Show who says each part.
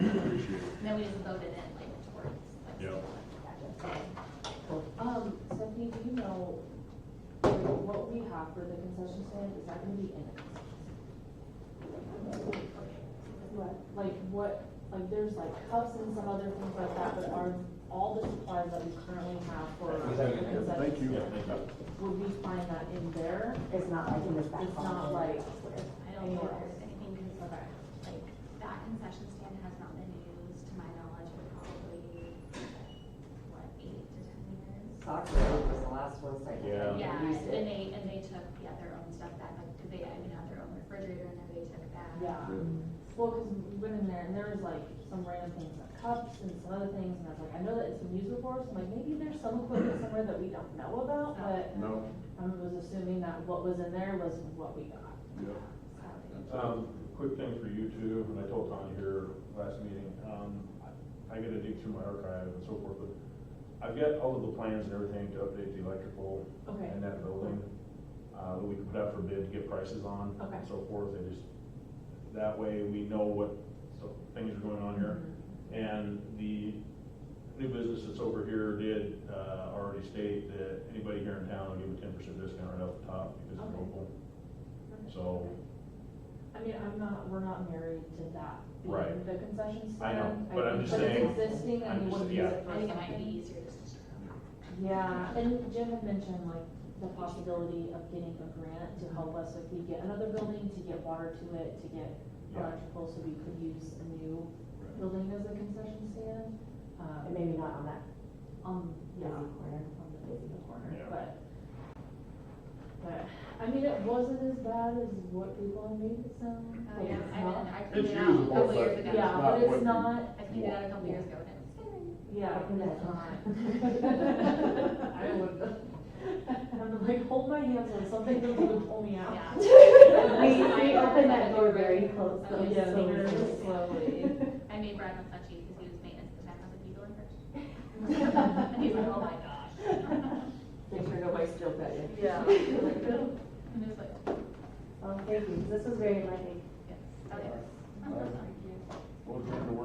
Speaker 1: we just voted in like towards. like,
Speaker 2: Yeah.
Speaker 1: that day.
Speaker 3: Um, Stephanie, do you know, like, what we have for the concession stand, is that gonna be in it? What? Like, what, like, there's like cups and some other things like that, but are all the supplies that we currently have for the
Speaker 4: Is that in
Speaker 3: concession
Speaker 4: here?
Speaker 3: stand?
Speaker 2: Thank you.
Speaker 3: Would we find that in there?
Speaker 5: It's not like in this back.
Speaker 3: It's not
Speaker 5: hallway.
Speaker 3: like,
Speaker 1: I don't think there's anything, cause like, that concession stand has not been used, to my knowledge, in probably, what, eight to ten years?
Speaker 5: Soccer field was the last one site.
Speaker 2: Yeah.
Speaker 1: Yeah,
Speaker 5: Used it.
Speaker 1: and they, and they took, yeah, their own stuff back, like, cause they, I mean, had their own refrigerator and everybody took that.
Speaker 3: yeah. Well, cause we went in there and there was like some random things, like cups and some other things, and I was like, I know that it's been used before, so I'm like, maybe there's some equipment somewhere that we don't know about, but
Speaker 2: No,
Speaker 3: I was assuming that what was in there was what we got.
Speaker 2: yeah.
Speaker 4: Um, quick thing for you two, and I told Tanya here last meeting, um, I I gotta dig through my archive and so forth, but I've got all of the plans and everything to update the electrical
Speaker 3: Okay.
Speaker 4: in that building, uh, that we can put out for bid to get prices on
Speaker 3: Okay.
Speaker 4: and so forth, and just, that way we know what, so, things are going on here.
Speaker 3: Mm-hmm.
Speaker 4: And the new business that's over here did, uh, already state that anybody here in town will give a ten percent discount right off the top, because it's
Speaker 3: Okay.
Speaker 4: local, so.
Speaker 3: I mean, I'm not, we're not married to that being
Speaker 4: Right.
Speaker 3: the concession stand.
Speaker 4: I know, but I'm
Speaker 3: think-
Speaker 4: just saying-
Speaker 3: But it's existing
Speaker 4: I'm
Speaker 3: and you
Speaker 4: just-
Speaker 3: wouldn't
Speaker 4: yeah.
Speaker 3: use it for
Speaker 1: I think it might be
Speaker 3: something.
Speaker 1: easier just to.
Speaker 3: Yeah, and Jim had mentioned like the possibility of getting a grant to help us if we get another building, to get water to it, to get
Speaker 4: Yeah.
Speaker 3: electrical, so we could use a new building as a concession stand. Uh,
Speaker 5: And maybe not on that
Speaker 3: um, yeah,
Speaker 5: busy corner.
Speaker 3: on the face of the corner,
Speaker 4: Yeah.
Speaker 3: but. But, I mean, it wasn't as bad as what people have made it sound.
Speaker 1: Oh,
Speaker 3: like
Speaker 1: yeah,
Speaker 3: it's
Speaker 1: I
Speaker 3: not.
Speaker 1: mean, I cleaned
Speaker 2: It's
Speaker 1: it out a
Speaker 2: usable,
Speaker 1: couple
Speaker 2: but
Speaker 1: years
Speaker 2: it's
Speaker 1: ago.
Speaker 3: Yeah, but
Speaker 2: what
Speaker 3: it's
Speaker 2: you-
Speaker 3: not,
Speaker 1: I cleaned it out a couple years ago and it was scary.
Speaker 3: yeah,
Speaker 5: Fucking
Speaker 3: it's
Speaker 5: that.
Speaker 3: not. I would, I'm like, hold my hands on something that would pull me out.
Speaker 1: Yeah.
Speaker 5: We, we opened that door very close.
Speaker 1: Oh,
Speaker 5: though,
Speaker 1: yeah,
Speaker 5: so
Speaker 3: very
Speaker 5: we-
Speaker 3: slowly.
Speaker 1: I made Brad look touchy because he was maintenance at the time, I was like, you go in first. And he's like, oh my gosh.
Speaker 5: Make sure nobody steals that. in.
Speaker 3: Yeah.
Speaker 1: And it's like,
Speaker 5: Oh, thank you, this was very enlightening.
Speaker 1: yes, okay.
Speaker 2: Well, it's going to work.